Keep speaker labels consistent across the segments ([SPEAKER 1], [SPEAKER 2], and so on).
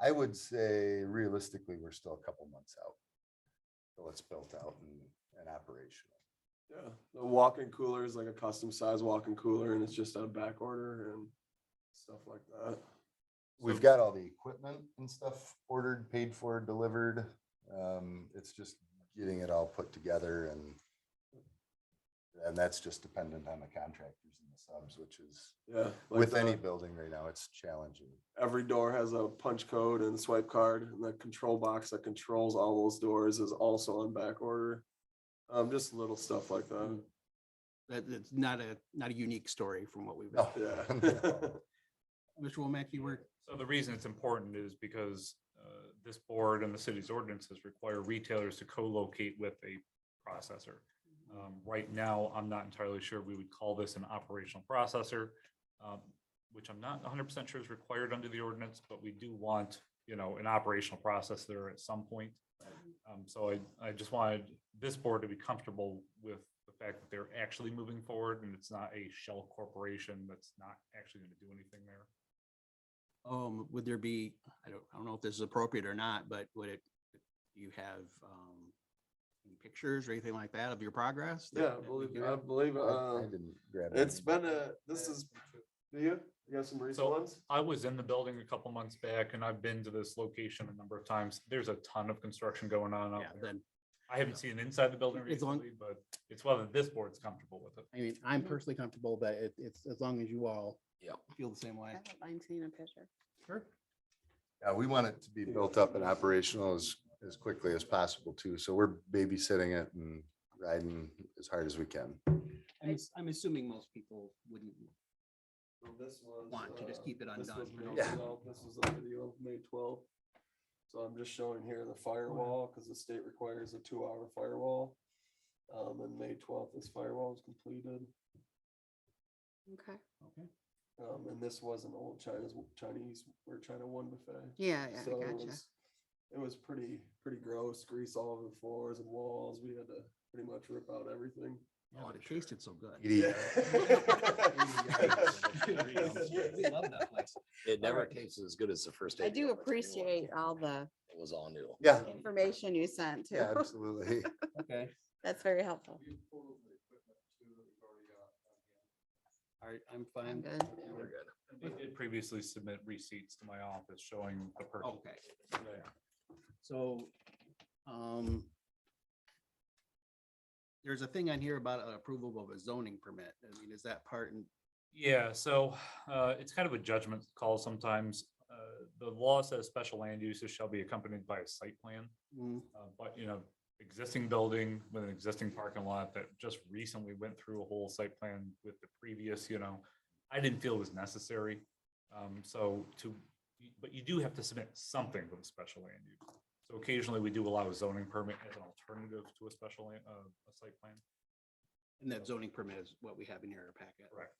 [SPEAKER 1] I would say realistically, we're still a couple months out. Till it's built out and, and operational.
[SPEAKER 2] Yeah, the walk-in cooler is like a custom size walk-in cooler and it's just on back order and stuff like that.
[SPEAKER 1] We've got all the equipment and stuff ordered, paid for, delivered. Um, it's just getting it all put together and and that's just dependent on the contractors and the subs, which is
[SPEAKER 2] Yeah. like
[SPEAKER 1] with
[SPEAKER 2] the-
[SPEAKER 1] any building right now, it's challenging.
[SPEAKER 2] Every door has a punch code and swipe card and the control box that controls all those doors is also on back order. Um, just little stuff like that.
[SPEAKER 3] That, that's not a, not a unique story from what we've.
[SPEAKER 1] No.
[SPEAKER 2] Yeah.
[SPEAKER 3] Mr. Womack, you were,
[SPEAKER 4] So the reason it's important is because uh, this board and the city's ordinances require retailers to co-locate with a processor.
[SPEAKER 3] Mm-hmm.
[SPEAKER 4] Um, Right now, I'm not entirely sure we would call this an operational processor, um, which I'm not hundred percent sure is required under the ordinance, but we do want, you know, an operational processor at some point.
[SPEAKER 3] Mm-hmm.
[SPEAKER 4] Um, So I, I just wanted this board to be comfortable with the fact that they're actually moving forward and it's not a shell corporation that's not actually going to do anything there.
[SPEAKER 3] um, would there be, I don't, I don't know if this is appropriate or not, but would it, do you have, um, any pictures or anything like that of your progress? that-
[SPEAKER 2] Yeah, I
[SPEAKER 3] that we
[SPEAKER 2] believe,
[SPEAKER 3] do
[SPEAKER 2] I
[SPEAKER 3] have?
[SPEAKER 2] believe,
[SPEAKER 1] I
[SPEAKER 2] uh,
[SPEAKER 1] didn't grab
[SPEAKER 2] it's
[SPEAKER 1] any.
[SPEAKER 2] been a, this is, do you, you got some recent
[SPEAKER 4] So-
[SPEAKER 2] ones?
[SPEAKER 4] I was in the building a couple months back and I've been to this location a number of times. There's a ton of construction going on out
[SPEAKER 3] Yeah,
[SPEAKER 4] there.
[SPEAKER 3] then,
[SPEAKER 4] I haven't seen inside the building
[SPEAKER 3] As long-
[SPEAKER 4] recently, but it's whether this board's comfortable with it.
[SPEAKER 3] I mean, I'm personally comfortable, but it, it's as long as you all. Feel the same
[SPEAKER 5] I
[SPEAKER 3] way.
[SPEAKER 5] don't mind seeing a picture.
[SPEAKER 3] Sure.
[SPEAKER 1] Yeah, we want it to be built up and operational as, as quickly as possible too. So we're babysitting it and riding as hard as we can.
[SPEAKER 3] I'm, ass- I'm assuming most people wouldn't,
[SPEAKER 2] So This was.
[SPEAKER 3] want to just
[SPEAKER 2] uh,
[SPEAKER 3] keep it
[SPEAKER 2] this
[SPEAKER 3] undone,
[SPEAKER 2] was
[SPEAKER 3] right?
[SPEAKER 2] made
[SPEAKER 1] Yeah.
[SPEAKER 2] without- This was a video of May twelfth. So I'm just showing here the firewall, because the state requires a two-hour firewall. Um, and May twelfth, this firewall was completed.
[SPEAKER 5] Okay.
[SPEAKER 3] okay,
[SPEAKER 2] Um, and this was an old China's, Chinese, or China one buffet.
[SPEAKER 5] Yeah, yeah,
[SPEAKER 2] So
[SPEAKER 5] I
[SPEAKER 2] it
[SPEAKER 5] gotcha.
[SPEAKER 2] was- It was pretty, pretty gross, grease all over the floors and walls. We had to pretty much rip out everything.
[SPEAKER 3] yeah, but oh, it tasted so good.
[SPEAKER 1] Edie,
[SPEAKER 3] We love that place.
[SPEAKER 6] It never
[SPEAKER 3] Alright.
[SPEAKER 6] tastes as good as the first.
[SPEAKER 5] I
[SPEAKER 6] day
[SPEAKER 5] do
[SPEAKER 6] of it, it's new.
[SPEAKER 5] appreciate all the
[SPEAKER 6] It was all new.
[SPEAKER 1] Yeah,
[SPEAKER 5] information you sent
[SPEAKER 1] yeah,
[SPEAKER 5] too.
[SPEAKER 1] absolutely.
[SPEAKER 3] Okay,
[SPEAKER 5] That's very helpful.
[SPEAKER 3] all right, I'm
[SPEAKER 5] I'm
[SPEAKER 3] fine.
[SPEAKER 5] good.
[SPEAKER 6] We're good.
[SPEAKER 4] They did previously submit receipts to my office showing the purchase.
[SPEAKER 3] Okay.
[SPEAKER 4] today.
[SPEAKER 3] So, um, there's a thing on here about uh, approval of a zoning permit. I mean, is that part in,
[SPEAKER 4] Yeah, so uh, it's kind of a judgment call sometimes. Uh, The law says special land uses shall be accompanied by a site plan.
[SPEAKER 3] mm,
[SPEAKER 4] Uh, But, you know, existing building with an existing parking lot that just recently went through a whole site plan with the previous, you know, I didn't feel was necessary. Um, so to, but you do have to submit something with a special land use. So occasionally we do allow a zoning permit as an alternative to a special, land- uh, a site plan.
[SPEAKER 3] and that zoning permit is what we have in here in our packet.
[SPEAKER 4] Correct.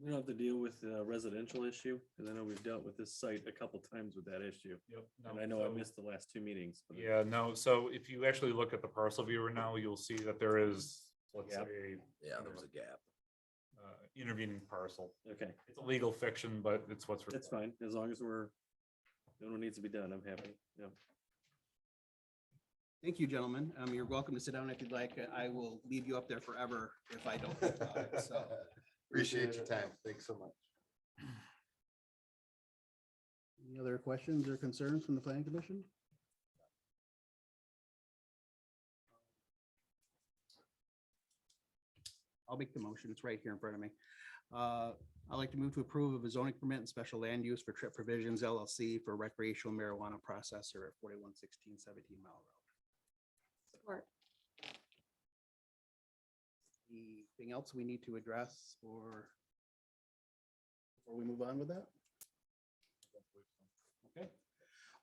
[SPEAKER 7] We don't have to deal with the residential issue, because I know we've dealt with this site a couple times with that issue.
[SPEAKER 4] Yep.
[SPEAKER 7] And I know I
[SPEAKER 4] so-
[SPEAKER 7] missed the last two meetings. but it-
[SPEAKER 4] Yeah, no, so if you actually look at the parcel viewer now, you'll see that there is, let's
[SPEAKER 7] Yep.
[SPEAKER 4] say,
[SPEAKER 6] Yeah, there was a gap.
[SPEAKER 4] uh, intervening parcel.
[SPEAKER 7] Okay,
[SPEAKER 4] It's a legal fiction, but it's what's.
[SPEAKER 7] that's
[SPEAKER 4] required.
[SPEAKER 7] fine, as long as we're, no one needs to be done, I'm happy, yeah.
[SPEAKER 3] Thank you, gentlemen. Um, you're welcome to sit down if you'd like. I will leave you up there forever if I don't. think about it, So,
[SPEAKER 1] Appreciate your time. Thanks so much.
[SPEAKER 3] any other questions or concerns from the planning commission? I'll make the motion. It's right here in front of me. Uh, I'd like to move to approve of a zoning permit and special land use for Trip Provisions LLC for recreational marijuana processor at forty-one sixteen seventeen mile road.
[SPEAKER 5] Support.
[SPEAKER 3] Anything else we need to address or before we move on with that? Okay.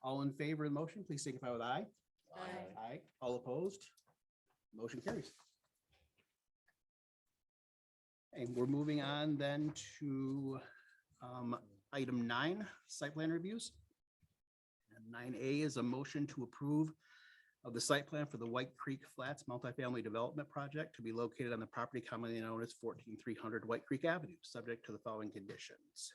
[SPEAKER 3] All in favor of the motion, please signify with aye.
[SPEAKER 5] Aye.
[SPEAKER 3] Aye. All opposed? Motion carries. And we're moving on then to um, item nine, site plan reviews. And nine A is a motion to approve of the site plan for the White Creek Flats multifamily development project to be located on the property commonly known as fourteen three hundred White Creek Avenue, subject to the following conditions.